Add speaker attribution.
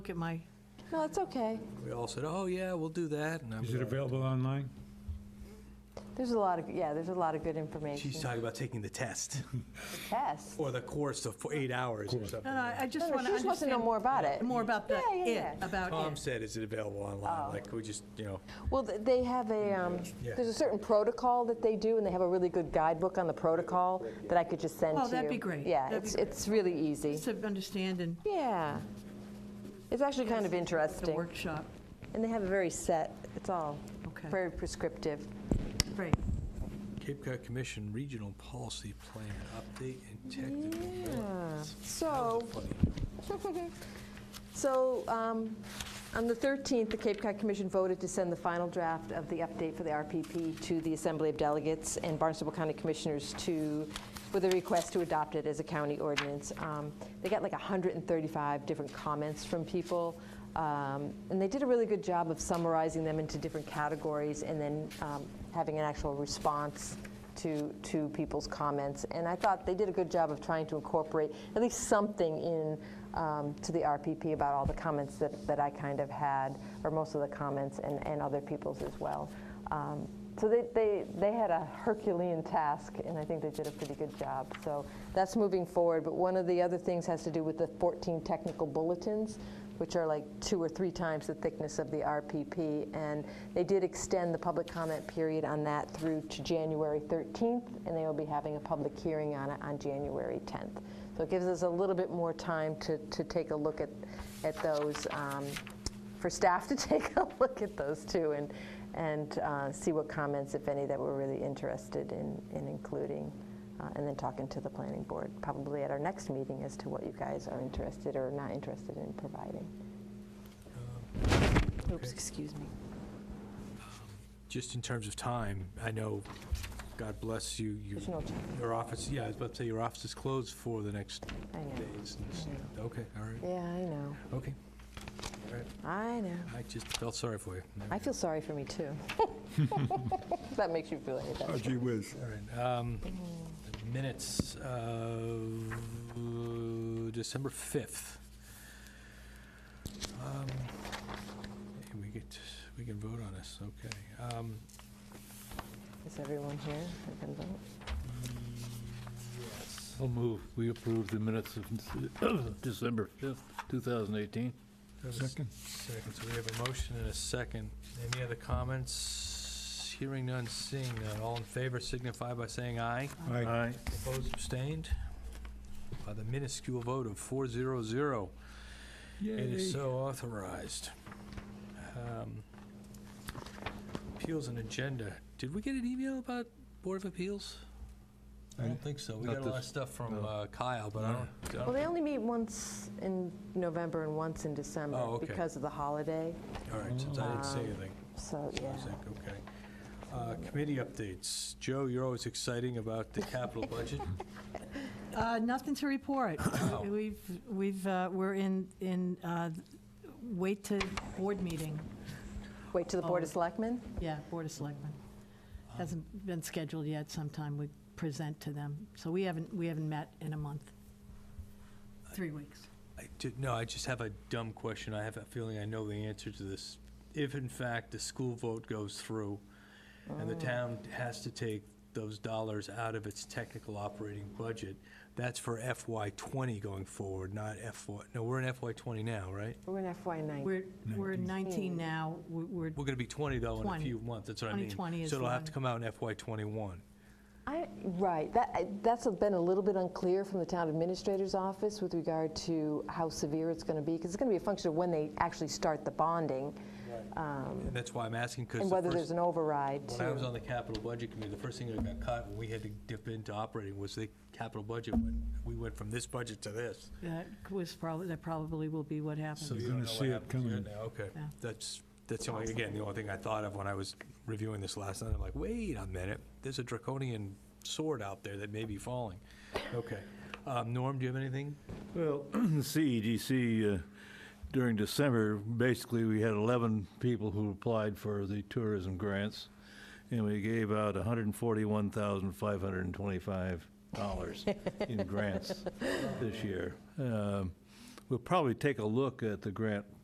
Speaker 1: Look at my,
Speaker 2: No, it's okay.
Speaker 3: We all said, oh, yeah, we'll do that. and I'm
Speaker 4: Is it
Speaker 3: like,
Speaker 4: available online?
Speaker 2: There's a lot of, yeah, there's a lot of good information.
Speaker 3: She's talking about taking the test
Speaker 2: Test.
Speaker 3: or the course of for eight hours or
Speaker 1: no,
Speaker 3: something.
Speaker 1: no, I
Speaker 2: No,
Speaker 1: just
Speaker 2: no,
Speaker 1: want
Speaker 2: She
Speaker 1: to
Speaker 2: just wants to know
Speaker 1: understand
Speaker 2: more about it.
Speaker 1: more about the
Speaker 2: Yeah,
Speaker 1: it,
Speaker 2: yeah, yeah.
Speaker 1: about
Speaker 3: Tom
Speaker 1: it.
Speaker 3: said, is it available
Speaker 2: Oh.
Speaker 3: online? Like, we just, you know,
Speaker 2: Well, th- they have a, um,
Speaker 3: Yeah.
Speaker 2: there's a certain protocol that they do, and they have a really good guidebook on the protocol that I could just send to
Speaker 1: Oh,
Speaker 2: you.
Speaker 1: that'd be great.
Speaker 2: Yeah,
Speaker 1: That'd be
Speaker 2: it's,
Speaker 1: great.
Speaker 2: it's really easy.
Speaker 1: Just to understand and
Speaker 2: Yeah. It's actually kind of
Speaker 1: the
Speaker 2: interesting.
Speaker 1: workshop.
Speaker 2: And they have a very set, it's all
Speaker 1: Okay.
Speaker 2: very prescriptive.
Speaker 1: Great.
Speaker 3: Cape Cod Commission Regional Policy Plan Update and Technical. Guidance. That
Speaker 2: So,
Speaker 3: was a funny-
Speaker 2: So, um, on the 13th, the Cape Cod Commission voted to send the final draft of the update for the RPP to the Assembly of Delegates and Barnstable County Commissioners to, with a request to adopt it as a county ordinance. Um, They got like 135 different comments from people, um, and they did a really good job of summarizing them into different categories and then um, having an actual response to, to people's comments. And I thought they did a good job of trying to incorporate at least something in um, to the RPP about all the comments that, that I kind of had, or most of the comments and, and other people's as well. Um, so they, they, they had a Herculean task, and I think they did a pretty good job. So that's moving forward. But one of the other things has to do with the 14 technical bulletins which are like two or three times the thickness of the RPP. And they did extend the public comment period on that through to January 13th, and they will be having a public hearing on it on January 10th. So it gives us a little bit more time to, to take a look at, at those, um, for staff to take a look at those too and, and uh, see what comments, if any, that we're really interested in, in including. Uh, and then talking to the planning board, probably at our next meeting, as to what you guys are interested or not interested in providing. Oops, excuse me.
Speaker 3: Just in terms of time, I know, God bless you, you,
Speaker 2: There's no time.
Speaker 3: your office, yeah, I was about to say, your office is closed for the next
Speaker 2: I know.
Speaker 3: days. and s- Okay, all right,
Speaker 2: Yeah, I know.
Speaker 3: okay. All right,
Speaker 2: I know.
Speaker 3: I just felt sorry for you.
Speaker 2: I feel sorry for me too. If that makes you feel any better.
Speaker 4: Oh, gee whiz.
Speaker 3: All right, um, the minutes of December 5th. Um, hey, We get, we can vote on this, okay. Um,
Speaker 2: Is everyone here? I can vote.
Speaker 5: I'll move, we approve the minutes of December 5th, 2018.
Speaker 4: Second.
Speaker 3: Second, so we have a motion and a second. Any other comments? Hearing none, seeing none. All in favor signify by saying aye.
Speaker 4: Aye.
Speaker 3: Opposed, abstained? By the minuscule vote of 400. It is so authorized. Um, Appeals and agenda. Did we get an email about Board of Appeals? I don't think so. We
Speaker 5: Not
Speaker 3: got a lot of
Speaker 5: this-
Speaker 3: stuff from
Speaker 5: no.
Speaker 3: uh, Kyle, but I don't- uh, I
Speaker 2: Well,
Speaker 3: don't,
Speaker 2: they only meet once in November and once in
Speaker 3: Oh,
Speaker 2: December
Speaker 3: okay.
Speaker 2: because of the holiday,
Speaker 3: all right, since I didn't say anything.
Speaker 2: so,
Speaker 3: I was
Speaker 2: yeah.
Speaker 3: like, okay. Uh, Committee updates. Joe, you're always exciting about the capital budget.
Speaker 1: Uh, Nothing to report.
Speaker 3: Oh.
Speaker 1: We've, we've, uh, we're in, in, uh, wait to board meeting.
Speaker 2: Wait till the Board of
Speaker 3: Oh.
Speaker 2: Selectmen?
Speaker 1: Yeah, Board of Selectmen. Hasn't been scheduled yet. Sometime we present to them. So we haven't, we haven't met in a month. Three weeks.
Speaker 3: I did, no, I just have a dumb question. I have a feeling I know the answer to this. If in fact the school vote goes through and the town has to take those dollars out of its technical operating budget, that's for FY twenty going forward, not FY, no, we're in FY twenty now, right?
Speaker 2: We're in FY '19.
Speaker 1: We're, we're 19 now. We're- We're,
Speaker 3: We're gonna be twenty though in a
Speaker 1: 20.
Speaker 3: few months, that's what I mean.
Speaker 1: 2020 is
Speaker 3: So it'll have to
Speaker 1: one.
Speaker 3: come out in FY twenty-one.
Speaker 2: I, right, that, I- that's been a little bit unclear from the town administrator's office with regard to how severe it's going to be, because it's going to be a function of when they actually start the bonding, um,
Speaker 3: And that's why I'm asking, because
Speaker 2: and
Speaker 3: the
Speaker 2: whether there's
Speaker 3: first,
Speaker 2: an override
Speaker 3: when I was
Speaker 2: too.
Speaker 3: on the capital budget committee, the first thing that got cut when we had to dip into operating was the capital budget. when We went from this budget to this.
Speaker 1: that was probably, that probably will be what happens.
Speaker 3: So you
Speaker 4: You're
Speaker 3: don't
Speaker 4: gonna
Speaker 3: know what
Speaker 4: see it
Speaker 3: happens yet
Speaker 4: coming.
Speaker 3: now, Okay,
Speaker 1: Yeah.
Speaker 3: that's, that's the only, again, the only thing I thought of when I was reviewing this last night, I'm like, wait a minute, there's a draconian sword out there that may be falling. Okay, um, Norm, do you have anything?
Speaker 5: Well, the CEDC, uh, during December, basically, we had 11 people who applied for the tourism grants, and we gave out $141,525 in grants this year. Um, We'll probably take a look at the grant